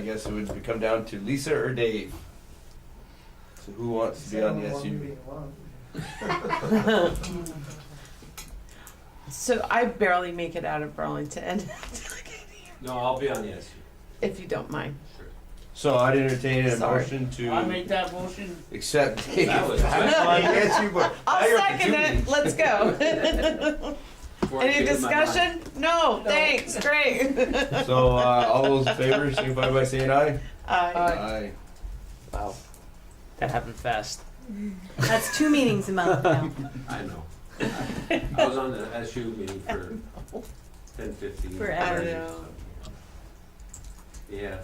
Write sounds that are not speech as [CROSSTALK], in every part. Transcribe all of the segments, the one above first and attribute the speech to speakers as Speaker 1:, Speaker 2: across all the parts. Speaker 1: I guess it would come down to Lisa or Dave. So who wants to be on the SUV?
Speaker 2: So I barely make it out of Burlington, [LAUGHS]
Speaker 3: No, I'll be on the SU.
Speaker 2: if you don't mind.
Speaker 1: So I'd entertain a
Speaker 2: Sorry.
Speaker 1: motion
Speaker 4: I
Speaker 1: to
Speaker 4: make that motion.
Speaker 1: accept Dave.
Speaker 3: [LAUGHS] That was-
Speaker 1: on the SU board. Now
Speaker 2: I'll
Speaker 1: you're
Speaker 2: second it.
Speaker 1: opportunity.
Speaker 2: Let's [LAUGHS] go.
Speaker 3: Before I
Speaker 2: Any
Speaker 3: change my mind.
Speaker 2: discussion? No, thanks.
Speaker 5: [LAUGHS]
Speaker 2: Great. [LAUGHS]
Speaker 1: So uh, all those in favor, signify by saying aye.
Speaker 2: Aye.
Speaker 5: Uh,
Speaker 1: Aye.
Speaker 4: Wow, that happened fast.
Speaker 5: That's two meetings a month now.
Speaker 3: I know. I was on the SU meeting for ten fifteen.
Speaker 5: Forever.
Speaker 2: I know.
Speaker 3: Yeah,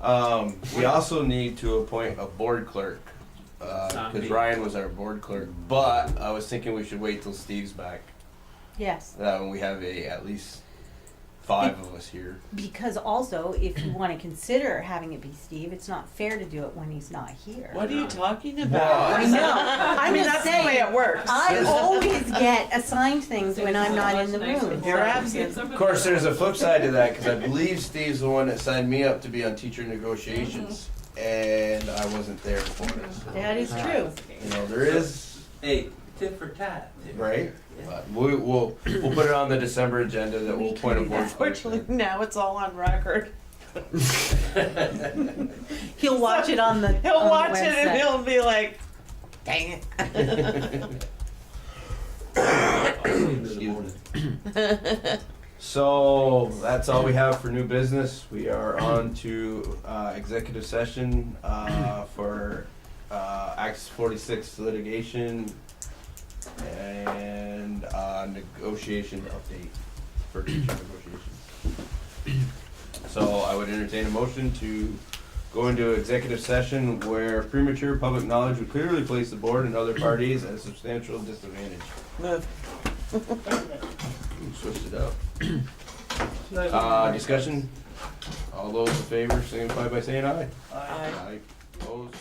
Speaker 1: Um, we also need to appoint a board clerk uh,
Speaker 3: Not
Speaker 1: because
Speaker 3: me.
Speaker 1: Ryan was our board clerk. But I was thinking we should wait till Steve's back.
Speaker 5: Yes,
Speaker 1: That when we have a at least five of us here.
Speaker 5: because also, if you want to consider having it be Steve, it's not fair to do it when he's not here.
Speaker 4: What are you talking
Speaker 1: Wow.
Speaker 4: about?
Speaker 5: I know.
Speaker 2: [LAUGHS] I mean, that's the way it works.
Speaker 5: [LAUGHS] I always get assigned things when I'm not in the room.
Speaker 2: You're absent.
Speaker 1: Of course, there's a flip side to that because I believe Steve's the one that signed me up to be on teacher negotiations,
Speaker 3: Mm-hmm.
Speaker 1: and I wasn't there for it. So,
Speaker 5: That is true.
Speaker 1: you know, there is
Speaker 3: hey, tit for tat. [LAUGHS]
Speaker 1: right.
Speaker 3: Yeah.
Speaker 1: But we, we'll we'll put it on the December agenda that
Speaker 5: We
Speaker 1: we'll
Speaker 5: can
Speaker 1: point a
Speaker 5: do
Speaker 1: board
Speaker 5: that.
Speaker 1: clerk. to.
Speaker 2: Fortunately, now it's all on record.
Speaker 5: He'll watch it on the. on
Speaker 2: He'll
Speaker 5: the
Speaker 2: watch it and
Speaker 5: website.
Speaker 2: he'll be like, dang
Speaker 1: [LAUGHS]
Speaker 3: I'll see you in the morning.
Speaker 2: it. [LAUGHS]
Speaker 1: So that's all we have for new business. We are on to uh, executive session uh, for uh, Act 46 litigation and uh, negotiation update for teacher negotiations. So I would entertain a motion to go into executive session where premature public knowledge would clearly place the board and other parties at a substantial disadvantage.
Speaker 2: Move.
Speaker 1: Switched it up. Uh, discussion? All those in favor signify by saying aye.
Speaker 2: Aye.
Speaker 1: Opposed?